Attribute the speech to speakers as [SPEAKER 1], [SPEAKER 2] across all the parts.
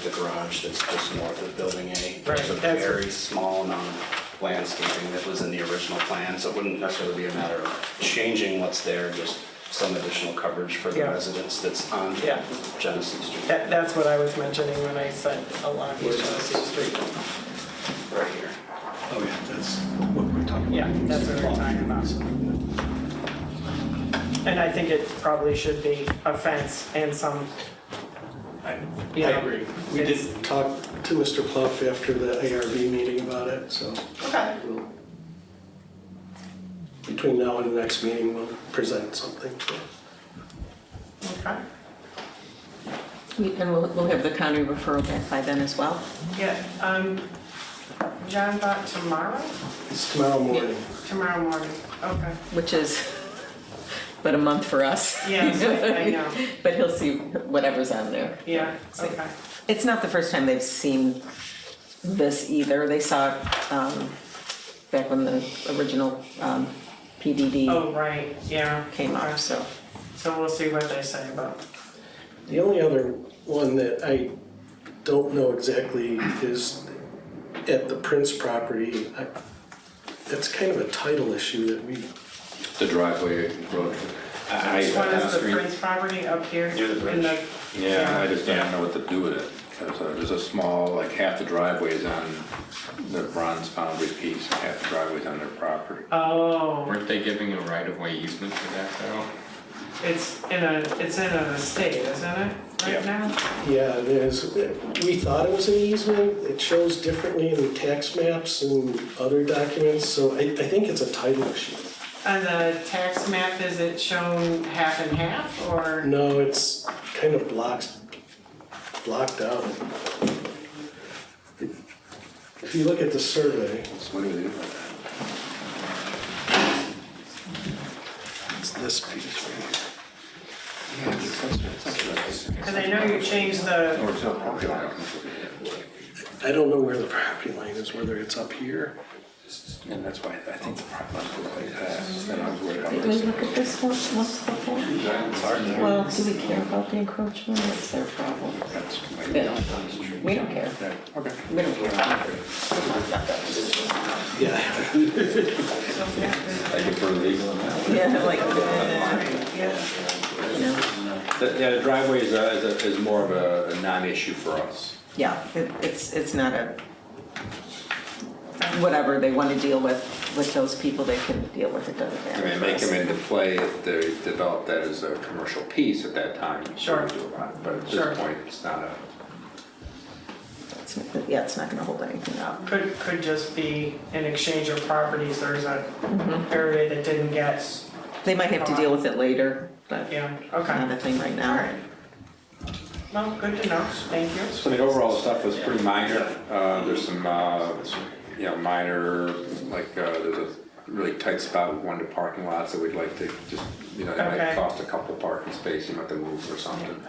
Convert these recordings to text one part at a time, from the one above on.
[SPEAKER 1] the garage that's just north of Building A.
[SPEAKER 2] Right,
[SPEAKER 1] There's a
[SPEAKER 2] that's-
[SPEAKER 1] very small amount of landscaping that was in the original plan, so it wouldn't necessarily be a matter of changing what's there, just some additional coverage for the
[SPEAKER 2] Yeah.
[SPEAKER 1] residents that's on
[SPEAKER 2] Yeah.
[SPEAKER 1] Genesee Street,
[SPEAKER 2] That, that's what I was mentioning when I said along East Genesee Street.
[SPEAKER 1] right here.
[SPEAKER 3] Oh, yeah, that's what we're talking about.
[SPEAKER 2] Yeah, that's what we're talking about. And I think it probably should be a fence and some,
[SPEAKER 3] I
[SPEAKER 2] Yeah.
[SPEAKER 3] I agree. We
[SPEAKER 2] It's-
[SPEAKER 3] did talk to Mr. Pluff after the ARB meeting about it, so. we'll- Between now and the next meeting, we'll present something.
[SPEAKER 2] okay,
[SPEAKER 4] We- And we'll, we'll have the county referral back by then as well.
[SPEAKER 2] yeah, um, John bought tomorrow,
[SPEAKER 3] It's tomorrow morning.
[SPEAKER 2] tomorrow morning, okay.
[SPEAKER 4] which is but a month for us.
[SPEAKER 2] Yes, I know.
[SPEAKER 4] But he'll see whatever's on there.
[SPEAKER 2] Yeah, okay,
[SPEAKER 4] It's not the first time they've seen this either. They saw it um, back when the original um, PDD
[SPEAKER 2] oh, right, yeah.
[SPEAKER 4] came
[SPEAKER 2] okay.
[SPEAKER 4] out, so.
[SPEAKER 2] So we'll see what they say about,
[SPEAKER 3] The only other one that I don't know exactly is at the Prince property. I- That's kind of a title issue that we,
[SPEAKER 5] The driveway road.
[SPEAKER 1] I- I-
[SPEAKER 2] which one
[SPEAKER 1] down
[SPEAKER 2] is the
[SPEAKER 1] street-
[SPEAKER 2] Prince property up here?
[SPEAKER 1] Near the
[SPEAKER 2] in
[SPEAKER 1] bridge.
[SPEAKER 5] Yeah, I just don't know what to do with it. There's a- There's a small, like half the driveway's on the bronze boundary piece, and half the driveway's on their property.
[SPEAKER 2] Oh,
[SPEAKER 6] Weren't they giving a right-of-way easement for that though?
[SPEAKER 2] it's in a, it's in an estate, isn't it,
[SPEAKER 1] Yeah.
[SPEAKER 2] right now?
[SPEAKER 3] yeah, there's, we thought it was an easement. It shows differently in tax maps and other documents, so I, I think it's a title issue.
[SPEAKER 2] On the tax map, is it shown half and half, or?
[SPEAKER 3] No, it's kind of blocked, blocked out. If you look at the survey,
[SPEAKER 5] So what do we do with
[SPEAKER 3] it's this piece right here.
[SPEAKER 5] that? Yeah, it's- it's- it's- it's-
[SPEAKER 2] Because I know you changed the,
[SPEAKER 5] Or it's not property line.
[SPEAKER 3] I don't know where the property line is, whether it's up here.
[SPEAKER 5] And that's why I think the property line goes like that, and I was worried about
[SPEAKER 4] Did we
[SPEAKER 5] this.
[SPEAKER 4] look at this one once before?
[SPEAKER 5] It's hard to-
[SPEAKER 4] Well, do we care about the encroachment? It's their problem.
[SPEAKER 5] That's why we
[SPEAKER 4] Yeah.
[SPEAKER 5] don't.
[SPEAKER 4] We don't care.
[SPEAKER 5] Okay.
[SPEAKER 4] We don't care about it.
[SPEAKER 3] Yeah.
[SPEAKER 2] so, yeah,
[SPEAKER 5] Thank you for legal analysis.
[SPEAKER 4] Yeah, like, uh,
[SPEAKER 2] yeah,
[SPEAKER 4] you know,
[SPEAKER 5] The- Yeah, the driveway is, a- is a- is more of a a non-issue for us.
[SPEAKER 4] yeah, it- it's, it's not a, whatever they want to deal with, with those people, they can deal with it, doesn't
[SPEAKER 5] I
[SPEAKER 4] matter.
[SPEAKER 5] mean, they come into play if they develop that as a commercial piece at that time. we
[SPEAKER 2] Sure.
[SPEAKER 5] do a lot, But at
[SPEAKER 2] Sure.
[SPEAKER 5] this point, it's not a,
[SPEAKER 4] It's not- Yeah, it's not going to hold anything up.
[SPEAKER 2] could, could just be an exchange of properties, there's a area that didn't get,
[SPEAKER 4] They might have to deal with it later, but
[SPEAKER 2] yeah,
[SPEAKER 4] not
[SPEAKER 2] okay.
[SPEAKER 4] a thing right
[SPEAKER 2] All
[SPEAKER 4] now.
[SPEAKER 2] right. Well, good to know, thank you.
[SPEAKER 5] so the overall stuff was pretty minor. Uh, There's some, uh, you know, minor, like, uh, there's a really tight spot with one of the parking lots that we'd like to just, you know, it
[SPEAKER 2] Okay.
[SPEAKER 5] might cost a couple parking spaces, you might have to move or something.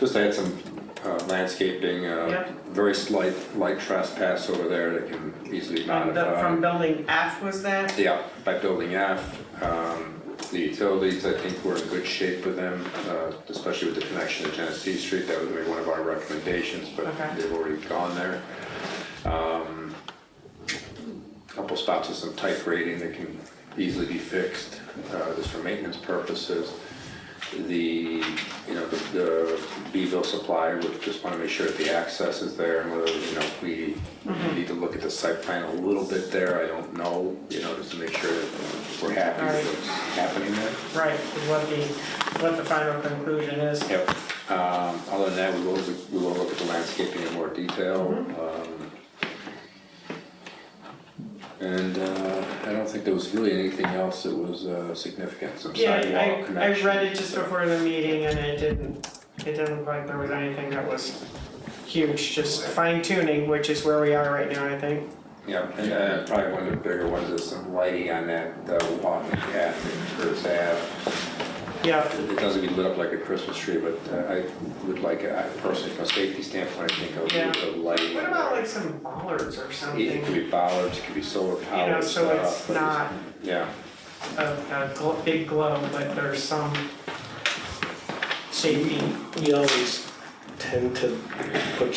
[SPEAKER 5] Just add some uh, landscaping, uh,
[SPEAKER 2] Yep.
[SPEAKER 5] very slight, light trespass over there that can easily
[SPEAKER 2] From Um, the-
[SPEAKER 5] modify.
[SPEAKER 6] Uh,
[SPEAKER 2] From building F was that?
[SPEAKER 5] Yeah, by building F, um, the utilities, I think we're in good shape with them, uh, especially with the connection to Genesee Street. That was gonna be one of our recommendations, but
[SPEAKER 2] Okay.
[SPEAKER 5] they've already gone there. Um, Couple spots with some tight grading that can easily be fixed, uh, just for maintenance purposes. The, you know, the- the Beville supply, we just wanna make sure that the access is there and whether, you know, we
[SPEAKER 2] Mm-hmm.
[SPEAKER 5] need to look at the site plan a little bit there, I don't know, you know, just to make sure that we're happy with what's happening there.
[SPEAKER 2] Right, is what the, what the final conclusion is.
[SPEAKER 5] Yep. Um, Other than that, we will, we will look at the landscaping in more detail.
[SPEAKER 2] Mm-hmm.
[SPEAKER 5] um, And uh, I don't think there was really anything else that was uh, significant, some
[SPEAKER 2] Yeah, I-
[SPEAKER 5] sidewalk
[SPEAKER 2] I, I
[SPEAKER 5] connection.
[SPEAKER 2] read it just before the meeting and it didn't, it didn't look like there was anything that was huge, just fine tuning, which is where we are right now, I think.
[SPEAKER 5] Yeah, and uh, probably one of the bigger ones is some lighting on that uh, walking path in Curtis Ave.
[SPEAKER 2] Yeah,
[SPEAKER 5] It doesn't get lit up like a Christmas tree, but uh, I would like, I personally, from a safety standpoint, I think a
[SPEAKER 2] Yeah.
[SPEAKER 5] little bit of lighting.
[SPEAKER 2] what about like some bollards or
[SPEAKER 5] It could
[SPEAKER 2] something?
[SPEAKER 5] be bollards, it could be
[SPEAKER 2] You
[SPEAKER 5] solar
[SPEAKER 2] know,
[SPEAKER 5] powered stuff.
[SPEAKER 2] so it's
[SPEAKER 5] but
[SPEAKER 2] not
[SPEAKER 5] Yeah.
[SPEAKER 2] a, a gl- big glow, but there's some safety.
[SPEAKER 3] We always tend to put